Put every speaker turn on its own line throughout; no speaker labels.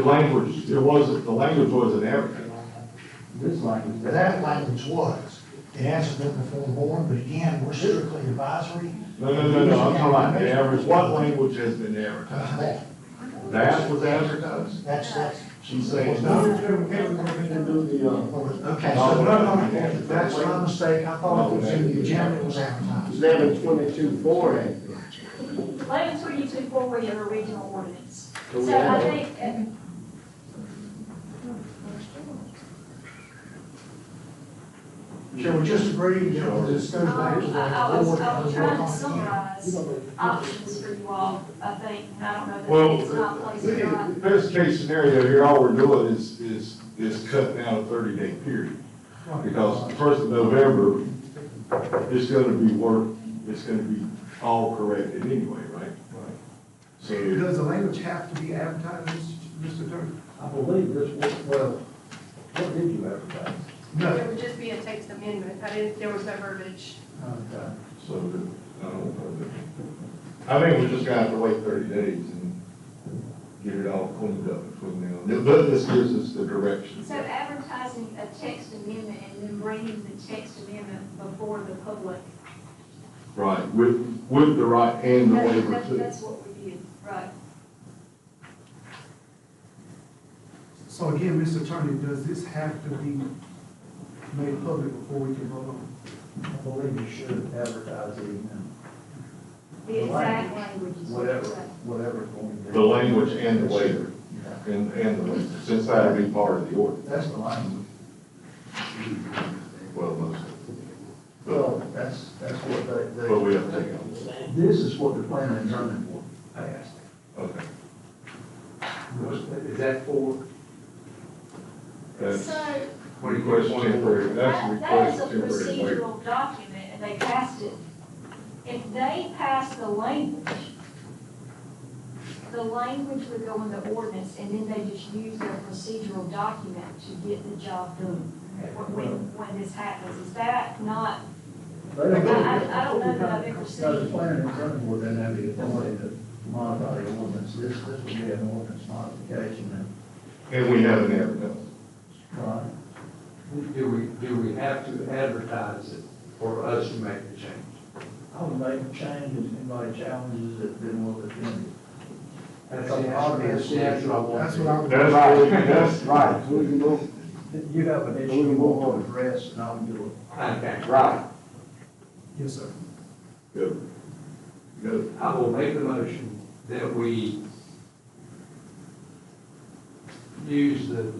The language, there was, the language wasn't advertised.
This language,
But that language was, it hasn't been before the board, but again, we're strictly advisory.
No, no, no, no, I'm talking about the average, what language has been advertised?
That,
That was advertised?
that's, that's.
She's saying no.
Okay,
Oh,
so, no, no, no, that's my mistake, I thought it was in the agenda, it was advertised.
eleven twenty-two four eh? act.
eleven twenty-two four was your original ordinance.
So we
So I
have-
think, uh,
Shall we just agree, you know, this goes back to the
Um,
board?
I I was, I was
and we'll work
trying
on
to
it again?
summarize options for you all, I think, and I don't know
Well,
that it's not place or not.
the best case scenario here, all we're doing is, is, is cutting out a thirty day period. Because the first of November, it's gonna be work, it's gonna be all corrected anyway, right? So,
Does the language have to be advertised, Mr. Attorney?
I believe this was, well, what did you advertise?
No.
It would just be a text amendment, I didn't, there was no verbiage.
Okay.
so, I don't know. I think we just gonna have to wait thirty days and get it all cleaned up between now and then. But this gives us the direction.
So advertising a text amendment and then bringing the text amendment before the public.
Right, with, with the right and the
That's-
waiver
that's-
too.
That's what we did, right.
So again, Mr. Attorney, does this have to be made public before we can vote on
I believe you should advertise it in
The exact language is what
whatever,
we said.
whatever it's going to be.
The language and the waiver,
Yeah,
and, and the waiver, since that'll be part of the order.
That's the language.
Well, most,
Well, that's, that's what they,
but we have to
they.
take out.
This is what the planning and zoning board passed.
Okay.
Is that for?
That's
So
request temporary, that's
that, that
request
is a
temporary waiver.
procedural document and they passed it. If they pass the language, the language would go in the ordinance and then they just use their procedural document to get the job done. When, when- when this happens, is that not,
They don't-
I- I- I don't know that I've ever seen-
No, the planning and zoning board doesn't have the authority to modify the ordinance, this, this would be an ordinance modification
And we haven't advertised.
and try.
Do we, do we have to advertise it for us to make the change?
I would make a change if anybody challenges it, then we'll defend it.
That's the obvious, that's what I
it?
want.
That's what I would.
That's right, that's
Right, we can go,
You have an issue you want to address, and I'll do
Okay,
right.
Yes, sir.
Good. Good.
I will make the motion that we use the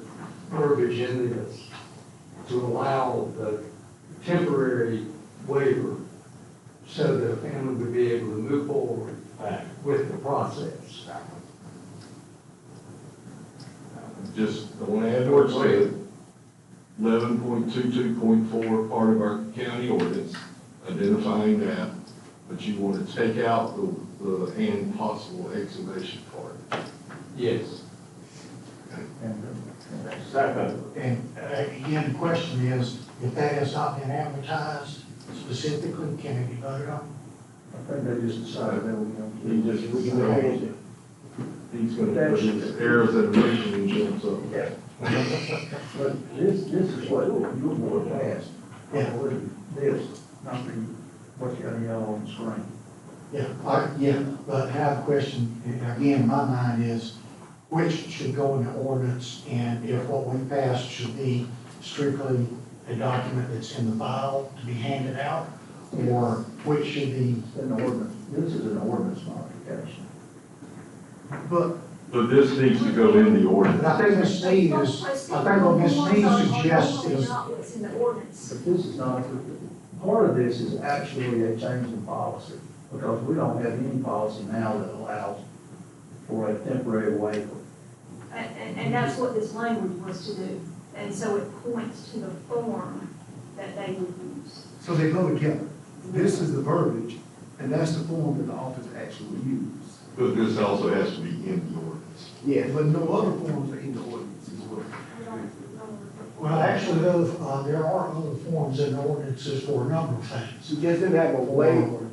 verbiage in this to allow the temporary waiver so the family would be able to move forward with the process.
Just, the want to add to eleven point two two point four, part of our county ordinance, identifying that, but you want to take out the, the and possible excavation part.
Yes.
it. And, uh, that's-
Second.
And uh, again, the question is, if that has not been advertised specifically, can it be voted on?
I think they just decided that we're going to.
You just- we can change it. He's going to put his errors and omissions in,
Yeah. But this, this is what your board passed.
Yeah.
This, not the, what you got yellow on the screen.
Yeah, I, yeah, but now the question, again, in my mind is, which should go in the ordinance? And if what we passed should be strictly a document that's in the file to be handed out? Or which should be,
It's an ordinance, this is an ordinance modification.
But
But this needs to go in the
but
ordinance.
I think Ms. Sneed is, I think what Ms. Sneed suggests
Normally
is,
Not what's in the ordinance.
But this is not, part of this is actually a change in policy, because we don't have any policy now that allows for a temporary waiver.
And, and, and that's what this language was to do. And so it points to the form that they would use.
So they go together. This is the verbiage, and that's the form that the office actually used.
But this also has to be in the ordinance.
Yes.
But no other forms are in the ordinance as well.
We don't- we don't-
well, actually, though, uh, there are other forms in ordinances for a number of things.
She just didn't have a waiver.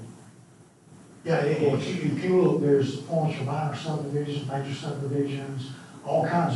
Yeah, if you, if you look, there's forms for minor subdivisions, major subdivisions, all kinds of.